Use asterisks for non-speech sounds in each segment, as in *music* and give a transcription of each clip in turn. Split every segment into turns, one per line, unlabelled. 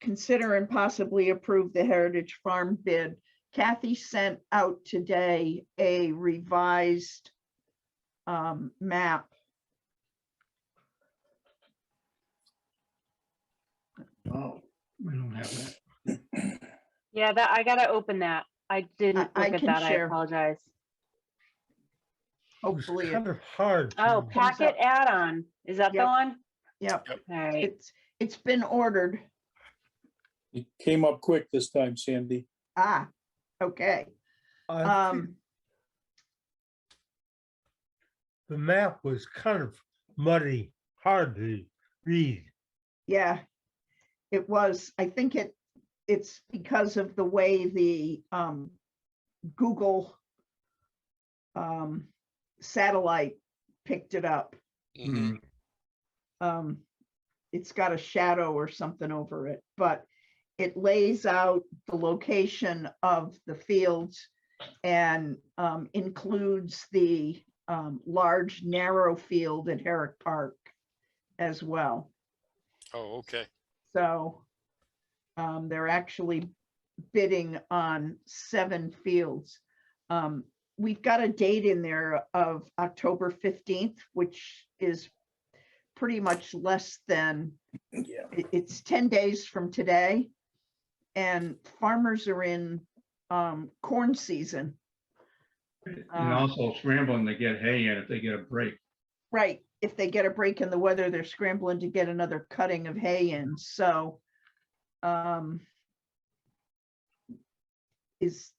consider and possibly approve the Heritage Farm bid. Kathy sent out today a revised um, map.
Oh, we don't have that.
Yeah, that, I gotta open that. I didn't
I
look at
can
that. I
share.
apologize.
Hopefully, it-
Oh, Kind of hard. to-
Oh, packet
up.
add-on. Is that the
Yep.
one?
yep,
All right.
it's, it's been ordered.
It came up quick this time, Sandy.
Ah, okay.
I think
Um,
The map was kind of muddy, hard to read.
yeah. It was, I think it, it's because of the way the um, Google um, satellite picked it up.
Mm-hmm.
Mm-hmm.
Mm-hmm.
um, it's got a shadow or something over it, but it lays out the location of the fields and um, includes the um, large narrow field at Herrick Park as well.
Oh, okay.
So um, they're actually bidding on seven fields. Um, We've got a date in there of October 15th, which is pretty much less than
Yeah.
it- it's ten days from today. And farmers are in um corn season.
And
Um,
also scrambling to get hay in if they get a break.
Right, if they get a break in the weather, they're scrambling to get another cutting of hay in, so. um Is,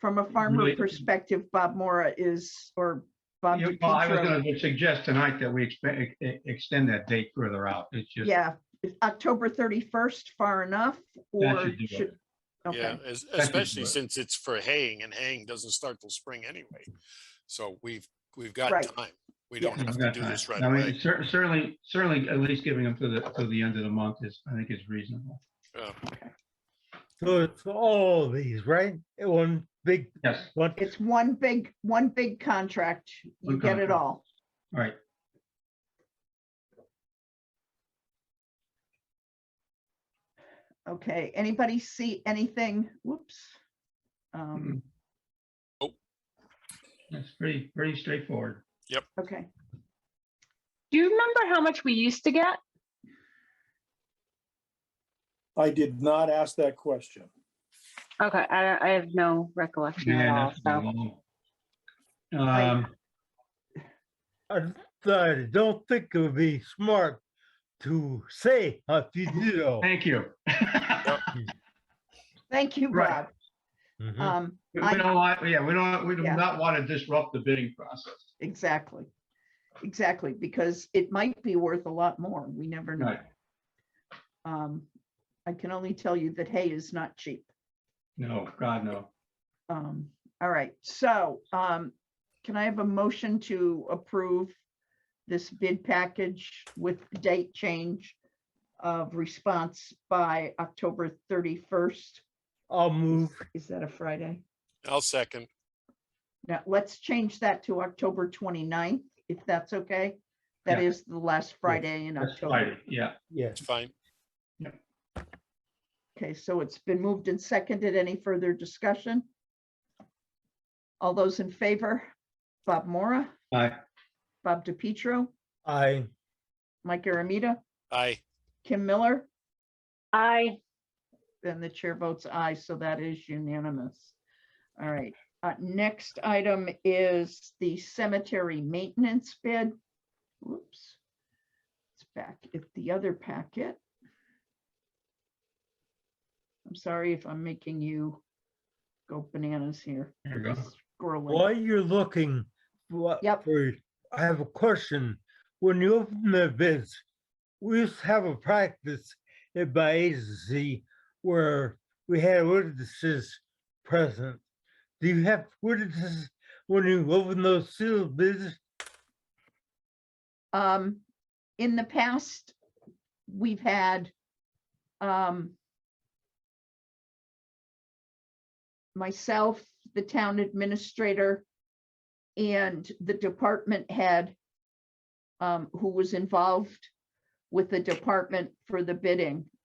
from a farmer
Really-
perspective, Bob Mora is, or Bob
You- Well, I was
DiPietro,
gonna suggest tonight that we expe- e- e- extend that date further out. It's just,
yeah, is October thirty-first, far enough,
That
or
should do it.
should?
Yeah,
Okay,
es-
could
especially
work.
since it's for haying and haying doesn't start till spring anyway. So we've, we've got
Right.
time. We
Yeah.
don't
I've
have to
got
do
time.
this right
I mean,
away.
cer- Certainly, certainly, at least giving them to the, to the end of the month is, I think is reasonable.
So it's all of these, right? It One big,
Yes,
one,
it's one big, one big contract, you
One
get it
contract.
all.
all right.
Okay, anybody see anything? Whoops. Um,
Oh.
That's pretty, pretty straightforward.
okay,
Do you remember how much we used to get?
I did not ask that question.
Okay, I, I have no
Oh,
recollection at
Yeah,
all,
that's a
so.
long- Um,
I I don't think it would be smart to say if you do. know.
thank you. *laughs*
thank you,
Right. Mm-hmm.
Rob.
Mhm.
Um,
We
I-
don't want, yeah, we don't, we do
Yeah.
not want to disrupt the bidding process.
exactly, exactly, because it might be worth a lot more. We never know.
Right,
Um, I can only tell you that hay is not cheap.
no, God, no.
Um, all right, so, um, can I have a motion to approve this bid package with date change of response by October thirty-first?
I'll move.
Is that a Friday?
I'll second.
Now, let's change that to October 29th, if that's okay. That
Yeah.
is the last Friday in
That's
October.
Friday, yeah.
Yes.
It's fine.
Okay, so it's been moved and seconded. Any further discussion? All those in favor? Bob Mora,
Aye.
Bob DiPietro,
I,
Mike Aramita,
Aye.
Kim Miller,
I,
and the chair votes aye, so that is unanimous. All right, uh, next item is the cemetery maintenance bid. Whoops. It's back at the other packet. I'm sorry if I'm making you go bananas here.
There we go.
Scrolling.
while you're looking, what?
Yep.
for- I have a question. When you open the bids, we used to have a practice at my agency where we had witnesses present. Do you have witnesses when you open those sealed bids?
Um, in the past, we've had, um, myself, the town administrator, and the department head, um, who was involved with the department for the bidding.